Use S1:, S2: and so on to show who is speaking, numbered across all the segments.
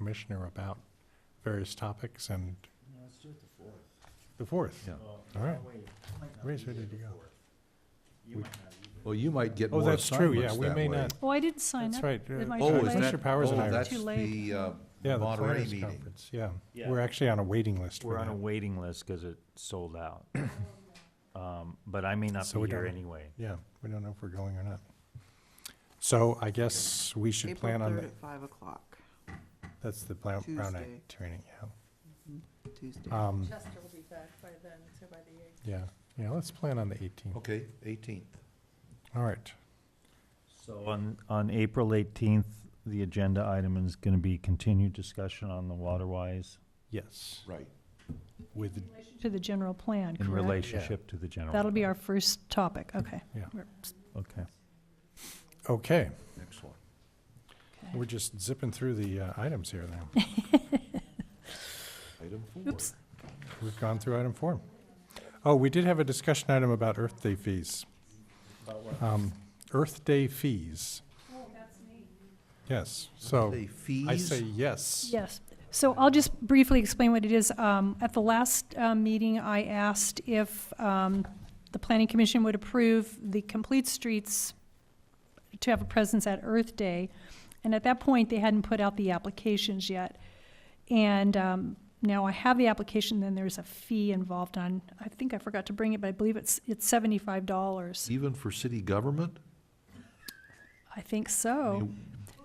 S1: commissioner about various topics and
S2: No, let's do it the fourth.
S1: the fourth.
S3: Yeah.
S2: Well,
S1: All right.
S2: that way you might not
S1: Ray's
S2: be
S1: ready
S2: here
S1: to
S2: the
S1: go.
S2: 4th. You
S3: We-
S2: might not be here.
S3: Well, you might get
S1: Oh,
S3: more
S1: that's true, yeah,
S3: assignments
S1: we
S3: that
S1: may
S3: way.
S1: not,
S4: Oh, I did sign
S1: that's
S4: up.
S1: right.
S4: It
S1: uh,
S4: might
S3: Oh, is
S4: Too
S3: that,
S1: Commissioner Powers
S3: oh,
S1: and I are,
S3: that's
S4: Too late.
S3: the uh,
S1: yeah, the
S3: Monterey
S1: planners
S3: meeting.
S1: conference, yeah.
S2: Yeah.
S1: We're actually on a waiting list for
S5: We're on a
S1: that.
S5: waiting list because it sold out. Um, But I may not
S1: So
S5: be
S1: we
S5: here
S1: don't-
S5: anyway.
S1: Yeah, we don't know if we're going or not. So I guess we should
S6: April
S1: plan on,
S6: third
S1: the-
S6: at five o'clock,
S1: that's the Brown Brown
S6: Tuesday.
S1: Act training, yeah.
S6: Tuesday.
S1: Um,
S7: Chester will be back by then, so by the eighth.
S1: Yeah, yeah, let's plan on the 18th.
S3: Okay, 18th.
S1: All right,
S5: So on, on April 18th, the agenda item is going to be continued discussion on the Waterwise
S1: yes,
S3: Right.
S1: with,
S4: To the general plan,
S5: in
S4: correct?
S5: relationship to the general.
S4: That'll be
S5: plan.
S4: our first topic, okay.
S1: Mm-hmm. Yeah.
S4: We're-
S5: Okay.
S1: okay,
S3: Excellent.
S4: okay.
S1: we're just zipping through the uh, items here now.
S3: Item four.
S4: Oops.
S1: We've gone through item four. Oh, we did have a discussion item about Earth Day fees. Um, Earth Day fees. Oh, that's me. Yes, so
S3: Say
S1: I say
S3: fees,
S1: yes.
S4: Yes. So I'll just briefly explain what it is. Um, At the last uh, meeting, I asked if um, the Planning Commission would approve the Complete Streets to have a presence at Earth Day. And at that point, they hadn't put out the applications yet. And um, now I have the application, then there's a fee involved on, I think I forgot to bring it, but I believe it's, it's seventy-five dollars.
S3: even for city government?
S4: I think so.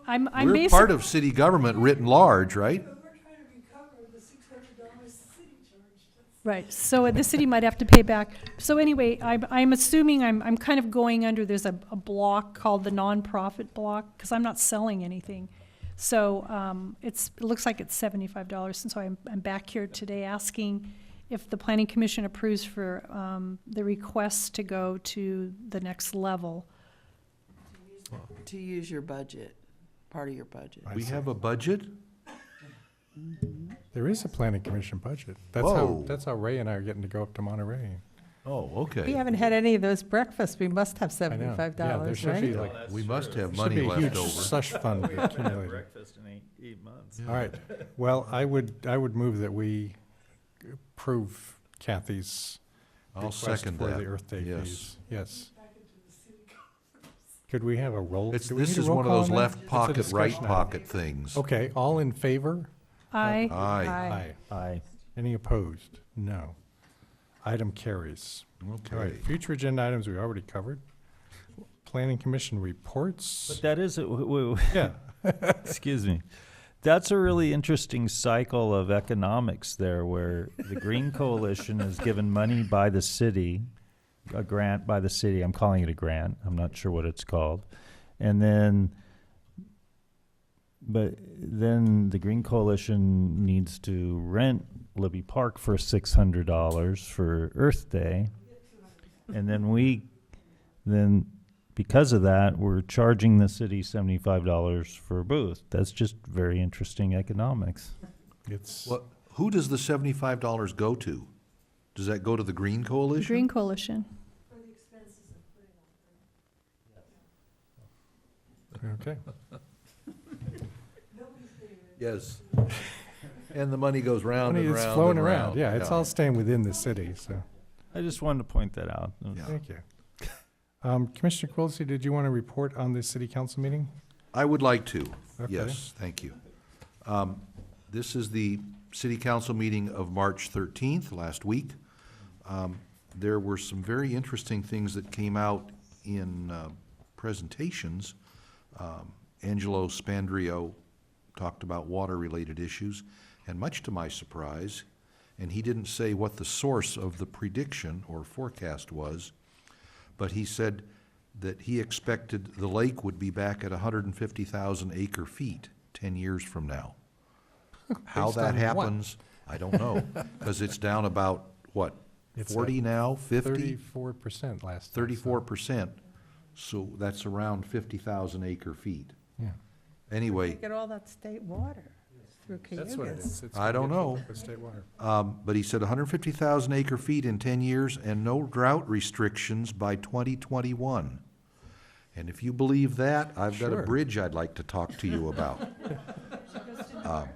S4: I'm, Oh, I'm
S3: We're
S4: basically.
S3: part of city government written large, right?
S4: Right, so the city might have to pay back. So anyway, I'm, I'm assuming, I'm, I'm kind of going under, there's a, a block called the nonprofit block, because I'm not selling anything. So, um, it's, it looks like it's seventy-five dollars, and so I'm, I'm back here today asking if the planning commission approves for, um, the request to go to the next level.
S6: To use your budget, part of your budget.
S1: I
S3: We
S1: say-
S3: have a budget?
S1: There is a planning commission budget. That's how,
S3: Whoa.
S1: that's how Ray and I are getting to go up to Monterey.
S3: Oh,
S7: We
S3: okay.
S7: haven't had any of those breakfasts. We must have
S1: I know. Yeah,
S7: seventy-five
S1: There
S7: dollars,
S1: should be
S7: right?
S1: like,
S3: We must have
S1: should
S3: money
S1: be a
S3: left
S1: huge
S3: over.
S1: slush fund accumulated.
S5: breakfast in eight, eight months.
S1: All right, well, I would, I would move that we approve Kathy's
S3: I'll
S1: request
S3: second
S1: for the
S3: that.
S1: Earth Day
S3: yes.
S1: fees. Yes. Could we have a roll?
S3: It's,
S1: do we need
S3: this
S1: a
S3: is
S1: roll
S3: one of
S1: call
S3: those
S1: on that?
S3: left
S1: It's a
S3: pocket, right
S1: discussion item.
S3: pocket things.
S1: Okay, all in favor?
S4: I,
S3: Aye.
S7: Aye.
S5: Aye.
S1: Any opposed? No. Item carries. All
S3: Okay.
S1: right, future agenda items we already covered. Planning Commission
S5: But
S1: reports.
S5: that is, a- w- w-
S1: Yeah,
S5: excuse me, that's a really interesting cycle of economics there where the Green Coalition is given money by the city, a grant by the city, I'm calling it a grant, I'm not sure what it's called. And then, but then the Green Coalition needs to rent Libby Park for six hundred dollars for Earth Day. And then we, then because of that, we're charging the city seventy-five dollars for a booth. That's just very interesting economics.
S1: it's,
S3: Well, who does the seventy-five dollars go to? Does that go to the Green
S4: the
S3: Coalition?
S4: Green Coalition.
S1: okay.
S3: Yes. And the money goes round
S1: Money
S3: and round
S1: is
S3: and
S1: flowing around,
S3: round.
S1: yeah, it's all staying within the city, so,
S5: I just wanted to point that out.
S3: Yeah.
S1: thank you. Um, Commissioner Quilisi, did you want to report on the city council meeting?
S3: I would like to.
S1: Okay.
S3: Yes, thank you. Um, This is the city council meeting of March 13th, last week. Um, There were some very interesting things that came out in uh, presentations. Um, Angelo Spandrio talked about water-related issues, and much to my surprise, and he didn't say what the source of the prediction or forecast was, but he said that he expected the lake would be back at hundred and fifty thousand acre feet ten years from now. How
S1: Based
S3: that
S1: on what?
S3: happens, I don't know, because it's down about, what,
S1: It's
S3: forty now, fifty?
S1: Thirty-four percent last. I saw.
S3: Thirty-four percent, so that's around fifty thousand acre feet.
S1: Yeah.
S7: They
S3: Anyway,
S7: Get all that state water through
S1: That's what it
S7: Cayugas.
S1: is. It's
S3: I don't know.
S1: with State water.
S3: Um, but he said hundred and fifty thousand acre feet in ten years and no drought restrictions by twenty twenty-one. And if you believe that, I've got a
S1: Sure.
S3: bridge I'd like to talk to you about. Um,